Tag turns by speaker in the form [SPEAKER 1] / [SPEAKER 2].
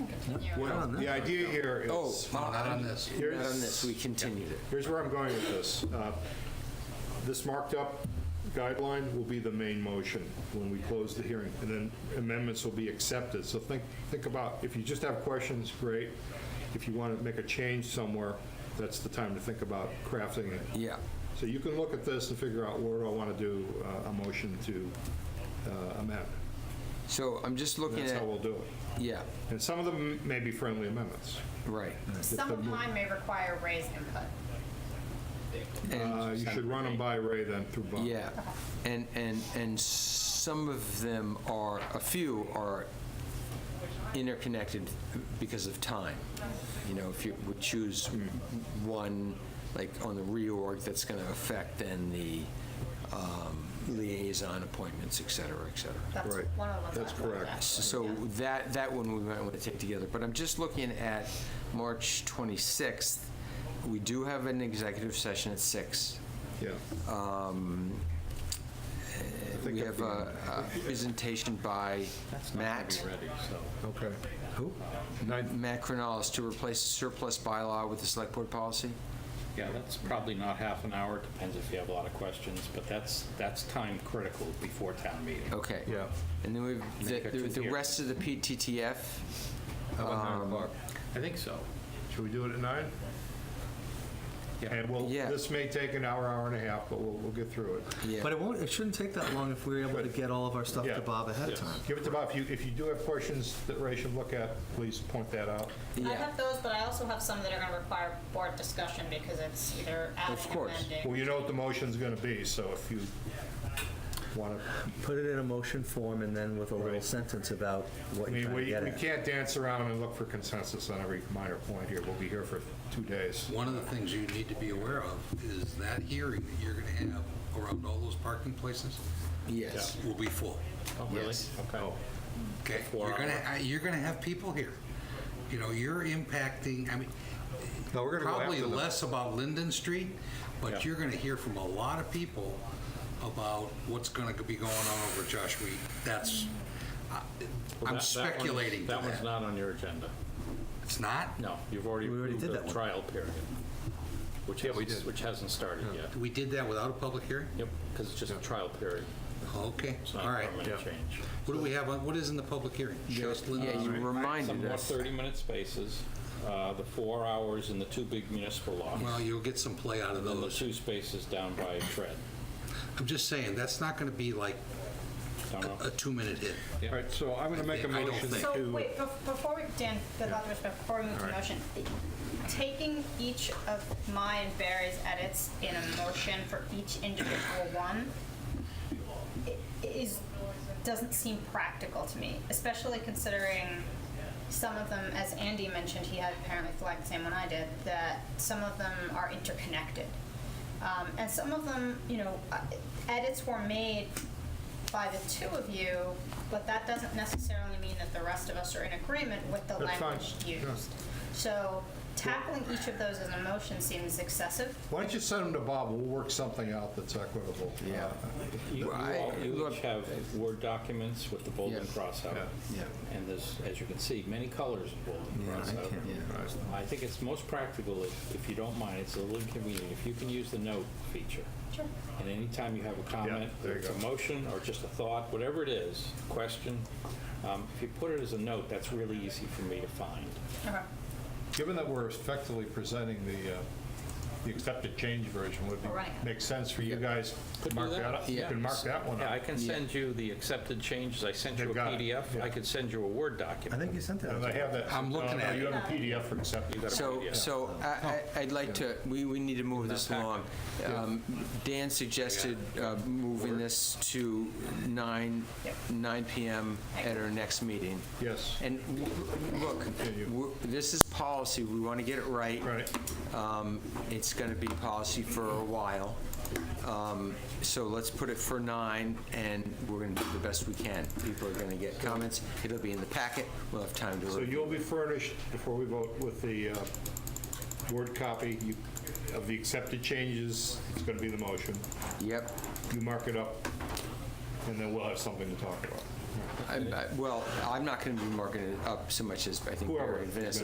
[SPEAKER 1] Well,
[SPEAKER 2] The idea here
[SPEAKER 3] Oh,
[SPEAKER 2] is,
[SPEAKER 3] not on
[SPEAKER 4] this.
[SPEAKER 3] Not on this, we continued it.
[SPEAKER 2] here's where I'm going with this. Uh, This marked up guideline will be the main motion when we close the hearing, and then amendments will be accepted. So think, think about, if you just have questions, great. If you want to make a change somewhere, that's the time to think about crafting it.
[SPEAKER 3] Yeah.
[SPEAKER 2] So you can look at this and figure out where do I want to do uh, a motion to uh, amend.
[SPEAKER 3] So I'm just
[SPEAKER 2] And
[SPEAKER 3] looking
[SPEAKER 2] That's
[SPEAKER 3] at,
[SPEAKER 2] how we'll do it.
[SPEAKER 3] yeah,
[SPEAKER 2] And some of them may be friendly amendments.
[SPEAKER 3] right.
[SPEAKER 1] Some of mine may require Ray's input.
[SPEAKER 2] Uh, You should run them by Ray then through Bob.
[SPEAKER 3] Yeah, and, and, and some of them are, a few are interconnected because of time. You know, if you would choose one, like on the reorg, that's going to affect then the um, liaison appointments, et cetera, et cetera.
[SPEAKER 1] That's
[SPEAKER 2] Right.
[SPEAKER 1] one of the ones.
[SPEAKER 2] That's
[SPEAKER 1] I've looked
[SPEAKER 2] correct.
[SPEAKER 1] at.
[SPEAKER 3] So
[SPEAKER 1] Yeah.
[SPEAKER 3] that, that one we might want to take together, but I'm just looking at March 26th. We do have an executive session at six.
[SPEAKER 2] Yeah.
[SPEAKER 3] Um, eh,
[SPEAKER 2] think
[SPEAKER 3] We
[SPEAKER 2] it'd
[SPEAKER 3] have
[SPEAKER 2] be-
[SPEAKER 3] a a presentation by Matt,
[SPEAKER 2] Okay.
[SPEAKER 3] who? Matt Cronalis to replace surplus bylaw with the select board policy.
[SPEAKER 5] Yeah, that's probably not half an hour, depends if you have a lot of questions, but that's, that's time critical before town meeting.
[SPEAKER 3] Okay.
[SPEAKER 2] Yeah.
[SPEAKER 3] And then we've,
[SPEAKER 5] Then you got
[SPEAKER 3] the-
[SPEAKER 5] two
[SPEAKER 3] the
[SPEAKER 5] here.
[SPEAKER 3] rest of the PTTF,
[SPEAKER 2] How about nine o'clock?
[SPEAKER 5] I think so.
[SPEAKER 2] Should we do it at nine?
[SPEAKER 5] Yeah.
[SPEAKER 2] And we'll,
[SPEAKER 3] Yeah.
[SPEAKER 2] this may take an hour, hour and a half, but we'll, we'll get through it.
[SPEAKER 3] yeah.
[SPEAKER 4] But it won't, it shouldn't take that long if we're able to get all of our stuff
[SPEAKER 2] Yeah.
[SPEAKER 4] to Bob ahead of time.
[SPEAKER 2] Give it to Bob. If you, if you do have questions that Ray should look at, please point that out.
[SPEAKER 1] I
[SPEAKER 3] Yeah.
[SPEAKER 1] have those, but I also have some that are going to require board discussion because it's either
[SPEAKER 3] Of
[SPEAKER 1] adding,
[SPEAKER 3] course.
[SPEAKER 2] Well,
[SPEAKER 1] amending.
[SPEAKER 2] you know what the motion's going to be, so if you want to,
[SPEAKER 4] Put it in a motion form and then with a little
[SPEAKER 2] Right.
[SPEAKER 4] sentence about
[SPEAKER 2] I
[SPEAKER 4] what you're
[SPEAKER 2] mean,
[SPEAKER 4] trying to
[SPEAKER 2] we,
[SPEAKER 4] get
[SPEAKER 2] we
[SPEAKER 4] at.
[SPEAKER 2] can't dance around and look for consensus on every minor point here. We'll be here for two days.
[SPEAKER 6] One of the things you need to be aware of is that hearing that you're going to have around all those parking places
[SPEAKER 3] Yes.
[SPEAKER 6] will be full.
[SPEAKER 5] Oh, really? Okay.
[SPEAKER 6] Okay?
[SPEAKER 5] Four
[SPEAKER 6] You're going
[SPEAKER 5] hour.
[SPEAKER 6] to, you're going to have people here. You know, you're impacting, I mean,
[SPEAKER 2] No, we're gonna go
[SPEAKER 6] probably
[SPEAKER 2] after them.
[SPEAKER 6] less about Linden Street,
[SPEAKER 5] Yeah.
[SPEAKER 6] but you're going to hear from a lot of people about what's going to be going on over Josh Weed. That's, I-
[SPEAKER 5] Well,
[SPEAKER 6] I'm
[SPEAKER 5] that- that one-
[SPEAKER 6] speculating to
[SPEAKER 5] That one's
[SPEAKER 6] that.
[SPEAKER 5] not on your agenda.
[SPEAKER 6] It's not?
[SPEAKER 5] No, you've already
[SPEAKER 4] We already
[SPEAKER 5] approved
[SPEAKER 4] did that
[SPEAKER 5] the
[SPEAKER 4] one.
[SPEAKER 5] trial period, which hasn't, which hasn't started yet.
[SPEAKER 6] We did that without a public hearing?
[SPEAKER 5] Yep, because it's just a trial period.
[SPEAKER 6] Okay,
[SPEAKER 5] It's
[SPEAKER 6] all
[SPEAKER 5] not a
[SPEAKER 6] right.
[SPEAKER 5] permanent change.
[SPEAKER 6] What do we have, on- what is in the public hearing? Just
[SPEAKER 3] Yeah,
[SPEAKER 6] Linden
[SPEAKER 3] you
[SPEAKER 2] Uh,
[SPEAKER 6] Street?
[SPEAKER 3] reminded
[SPEAKER 5] Some more
[SPEAKER 3] us.
[SPEAKER 5] 30-minute spaces, uh, the four hours in the two big municipal lots,
[SPEAKER 6] Well, you'll get some play out
[SPEAKER 5] and
[SPEAKER 6] of
[SPEAKER 5] the
[SPEAKER 6] those.
[SPEAKER 5] two spaces down by Fred.
[SPEAKER 6] I'm just saying, that's not going to be like
[SPEAKER 5] Don't know.
[SPEAKER 6] a two-minute hit.
[SPEAKER 2] All right, so I'm going to make a
[SPEAKER 6] I don't
[SPEAKER 2] motion
[SPEAKER 6] think-
[SPEAKER 1] So,
[SPEAKER 2] to,
[SPEAKER 1] wait, bef- before we, Dan, without respect, before we move to motion, taking each of my and Barry's edits in a motion for each individual one i- is, doesn't seem practical to me, especially considering some of them, as Andy mentioned, he had apparently flagged the same one I did, that some of them are interconnected. Um, and some of them, you know, uh, edits were made by the two of you, but that doesn't necessarily mean that the rest of us are in agreement with the
[SPEAKER 2] That's fine.
[SPEAKER 1] language used. So tackling each of those as a motion seems excessive.
[SPEAKER 2] why don't you send them to Bob? We'll work something out that's equitable.
[SPEAKER 3] Yeah.
[SPEAKER 2] Uh,
[SPEAKER 5] You you
[SPEAKER 3] Right.
[SPEAKER 5] all you
[SPEAKER 3] Look-
[SPEAKER 5] each have Word documents with the bold and
[SPEAKER 3] Yeah.
[SPEAKER 5] cross out.
[SPEAKER 2] Yeah.
[SPEAKER 3] Yeah.
[SPEAKER 5] And there's, as you can see, many colors of bold and cross out. I think it's most practical, if if you don't mind, it's a little inconvenient, if you can use the note feature.
[SPEAKER 1] Sure.
[SPEAKER 5] And anytime you have a comment,
[SPEAKER 2] there you
[SPEAKER 5] it's a
[SPEAKER 2] go.
[SPEAKER 5] motion or just a thought, whatever it is, question, um, if you put it as a note, that's really easy for me to find.
[SPEAKER 1] Okay.
[SPEAKER 2] Given that we're effectively presenting the, uh, the accepted change version, would it
[SPEAKER 1] Right.
[SPEAKER 2] make sense for you guys
[SPEAKER 5] Could
[SPEAKER 2] to
[SPEAKER 5] do
[SPEAKER 2] mark
[SPEAKER 5] that.
[SPEAKER 2] that up? You
[SPEAKER 3] Yeah.
[SPEAKER 2] can mark that one
[SPEAKER 5] Yeah, I
[SPEAKER 2] up.
[SPEAKER 5] can send you the accepted changes, I sent you a
[SPEAKER 2] They've got it,
[SPEAKER 5] PDF,
[SPEAKER 2] yeah.
[SPEAKER 5] I could send you a Word
[SPEAKER 4] I
[SPEAKER 5] document.
[SPEAKER 4] think you sent that.
[SPEAKER 2] And I have that.
[SPEAKER 6] I'm looking
[SPEAKER 2] no, no,
[SPEAKER 6] at
[SPEAKER 2] You
[SPEAKER 6] it.
[SPEAKER 2] have a PDF for accepting.
[SPEAKER 3] So, so I- I- I'd like to, we, we need to move this along. Um, Dan suggested uh, moving this to 9,
[SPEAKER 1] Yep.
[SPEAKER 3] 9 PM at our next meeting.
[SPEAKER 2] Yes.
[SPEAKER 3] And w- look,
[SPEAKER 2] Continue.
[SPEAKER 3] we're- this is policy, we want to get it right.
[SPEAKER 2] Right.
[SPEAKER 3] Um, It's going to be policy for a while. Um, So let's put it for 9, and we're going to do the best we can. People are going to get comments, it'll be in the packet, we'll have time to
[SPEAKER 2] So
[SPEAKER 3] review.
[SPEAKER 2] you'll be furnished, before we vote, with the uh, Word copy you- of the accepted changes. It's going to be the motion.
[SPEAKER 3] Yep,
[SPEAKER 2] You mark it up, and then we'll have something to talk about.
[SPEAKER 3] I- I- Well, I'm not going to be marking it up so much as I think
[SPEAKER 2] Whoever
[SPEAKER 3] Barry and Vanessa